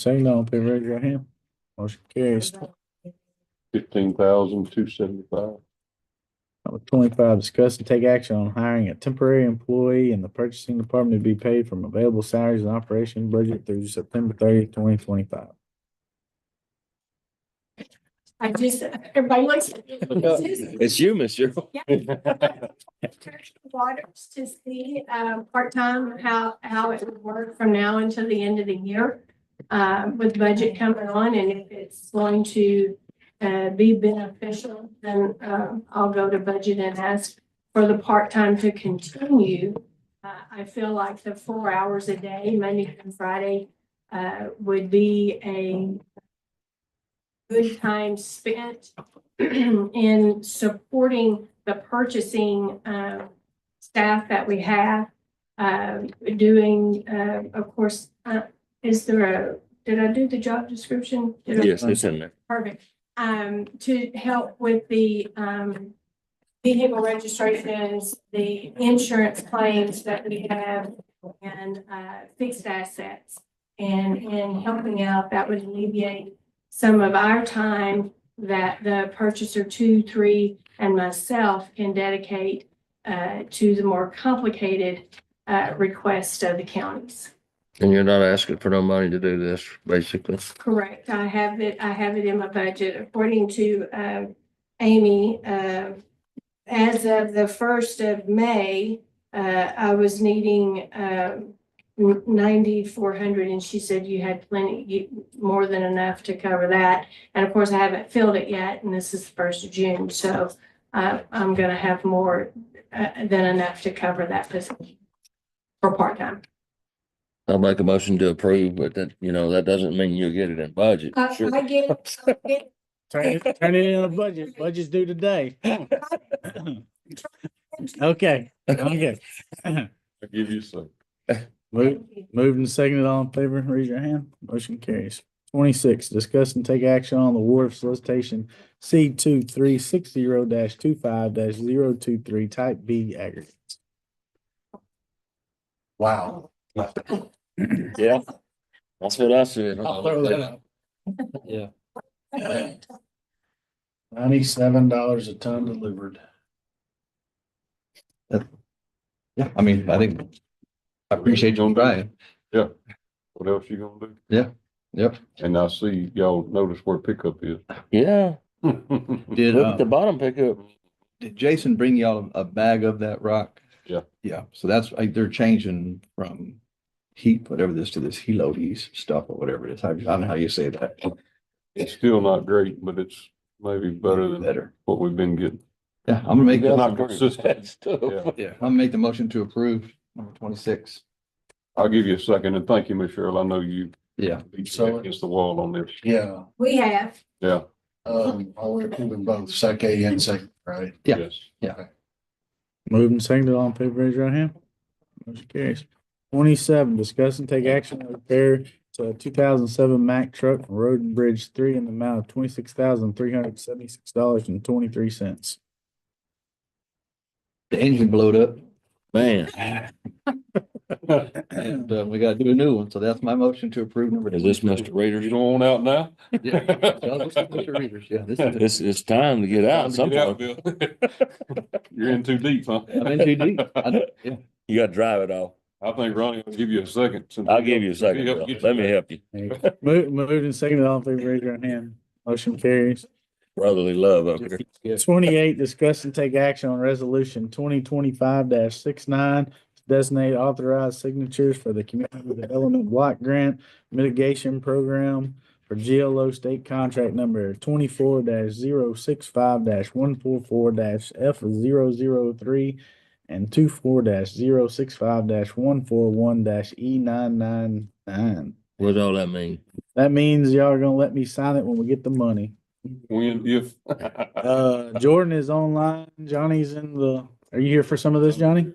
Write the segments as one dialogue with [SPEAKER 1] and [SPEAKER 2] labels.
[SPEAKER 1] Saying no, please raise your hand. Motion carries.
[SPEAKER 2] fifteen thousand two seventy-five.
[SPEAKER 1] Number twenty-five, discuss and take action on hiring a temporary employee in the purchasing department to be paid from available salaries and operation budget through September thirtieth, twenty twenty-five.
[SPEAKER 3] I just, everybody looks. at me.
[SPEAKER 4] It's you, Miss Cheryl.
[SPEAKER 3] Waters to see, um, part-time, how, how it would work from now until the end of the year. Uh, with budget coming on and if it's going to, uh, be beneficial, then, um, I'll go to budget and ask for the part-time to continue. Uh, I feel like the four hours a day, Monday through Friday, uh, would be a good time spent in supporting the purchasing um, staff that we have. um, Doing, uh, of course, uh, is there a, did I do the job description? Did I-
[SPEAKER 4] Yes, it's in there.
[SPEAKER 3] Perfect. Um, to help with the, um, vehicle registrations, the insurance claims that we have and, uh, fixed assets. And in helping out, that would alleviate some of our time that the purchaser two, three, and myself can dedicate, uh, to the more complicated, uh, requests of the counties.
[SPEAKER 4] And you're not asking for no money to do this, basically.
[SPEAKER 3] Correct. I have it, I have it in my budget according to uh, Amy. uh, As of the first of May, uh, I was needing uh, ninety-four hundred and she said you had plenty, you- more than enough to cover that. And of course, I haven't filled it yet and this is the first of June, so uh, I'm gonna have more uh, than enough to cover that position for part-time.
[SPEAKER 4] I'll make a motion to approve, but that, you know, that doesn't mean you'll get it in budget.
[SPEAKER 3] I
[SPEAKER 4] Sure.
[SPEAKER 3] Uh, I get it. I get it.
[SPEAKER 1] Turn it, turn it in a budget. Budget's due today. Okay, okay.
[SPEAKER 2] I give you some.
[SPEAKER 1] Move, moved and seconded, all in favor, raise your hand. Motion carries. Twenty-six, discuss and take action on the award of solicitation C two three six zero dash two five dash zero two three type B aggregate.
[SPEAKER 5] Wow.
[SPEAKER 4] Yeah. That's what I said.
[SPEAKER 5] I'll throw that out. Yeah.
[SPEAKER 1] Ninety-seven dollars a ton delivered.
[SPEAKER 5] Yeah, I mean, I think, I appreciate you on trying.
[SPEAKER 2] What else you gonna do?
[SPEAKER 5] Yeah, yep.
[SPEAKER 2] And I see y'all notice where pickup is.
[SPEAKER 4] Yeah,
[SPEAKER 5] Did,
[SPEAKER 4] look
[SPEAKER 5] uh,
[SPEAKER 4] at the bottom pickup.
[SPEAKER 5] did Jason bring y'all a bag of that rock?
[SPEAKER 2] Yeah.
[SPEAKER 5] Yeah, so that's, like, they're changing from heat, whatever this, to this helotes stuff or whatever it is. I I don't know how you say that.
[SPEAKER 2] It's still not great, but it's maybe better than
[SPEAKER 5] Better.
[SPEAKER 2] what we've been getting.
[SPEAKER 5] Yeah, I'm gonna make,
[SPEAKER 2] It's
[SPEAKER 5] the-
[SPEAKER 2] not consistent.
[SPEAKER 4] That's tough.
[SPEAKER 5] yeah, I'm gonna make the motion to approve number twenty-six.
[SPEAKER 2] I'll give you a second and thank you, Miss Cheryl. I know you
[SPEAKER 5] Yeah,
[SPEAKER 2] beat me
[SPEAKER 6] So-
[SPEAKER 2] against the wall on this.
[SPEAKER 6] Yeah,
[SPEAKER 3] We have
[SPEAKER 2] Yeah.
[SPEAKER 6] um, I would approve them both, sec A and sec, right?
[SPEAKER 5] Yeah.
[SPEAKER 2] yes.
[SPEAKER 1] Moved and seconded, all in favor, raise your hand. Motion carries. Twenty-seven, discuss and take action on repair to a two thousand seven Mack truck from Road and Bridge three in the amount of twenty-six thousand three hundred seventy-six dollars and twenty-three cents.
[SPEAKER 5] the engine blowed up
[SPEAKER 4] Man,
[SPEAKER 5] and uh, we gotta do a new one. So that's my motion to approve number.
[SPEAKER 4] is this Mr. Reader's?
[SPEAKER 2] You don't want out now?
[SPEAKER 5] Yeah. Yeah, let's look at your readers. Yeah, this is-
[SPEAKER 4] It's, it's time to get out at some
[SPEAKER 2] Get out,
[SPEAKER 4] point.
[SPEAKER 2] Bill. You're in too deep, huh?
[SPEAKER 5] I'm in too deep. I know, yeah.
[SPEAKER 4] You gotta drive it off.
[SPEAKER 2] I think Ronnie will give you a second. since
[SPEAKER 4] I'll
[SPEAKER 2] he
[SPEAKER 4] give you a
[SPEAKER 2] helped- he
[SPEAKER 4] second.
[SPEAKER 2] helped
[SPEAKER 4] Bill.
[SPEAKER 2] get you
[SPEAKER 4] Let me
[SPEAKER 2] there.
[SPEAKER 4] help you.
[SPEAKER 1] Moved, moved and seconded, all in favor, raise your hand. Motion carries.
[SPEAKER 4] Brotherly love up here.
[SPEAKER 5] Yes.
[SPEAKER 1] Twenty-eight, discuss and take action on resolution twenty twenty-five 69 to designate authorized signatures for the Community Development Block Grant Mitigation Program for GLO State Contract Number twenty-four 65 one four four F 3 and two four 65 one four one E nine nine nine.
[SPEAKER 4] What does all that mean?
[SPEAKER 1] That means y'all are gonna let me sign it when we get the money.
[SPEAKER 2] When, if.
[SPEAKER 1] Uh, Jordan is online. Johnny's in the, are you here for some of this, Johnny?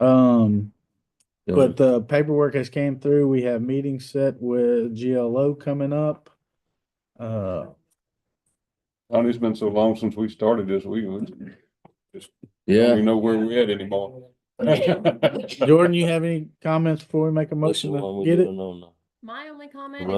[SPEAKER 1] Um, but the paperwork has came through. We have meetings set with GLO coming up. Uh,
[SPEAKER 2] Ronnie, it's been so long since we started this, we, we don't
[SPEAKER 4] Yeah,
[SPEAKER 2] even know where we're at anymore.
[SPEAKER 1] Jordan, you have any comments before we make a
[SPEAKER 4] that's the
[SPEAKER 1] motion
[SPEAKER 4] one
[SPEAKER 1] to
[SPEAKER 4] we're
[SPEAKER 1] get it?
[SPEAKER 4] doing on the-
[SPEAKER 7] My only comment
[SPEAKER 4] Right.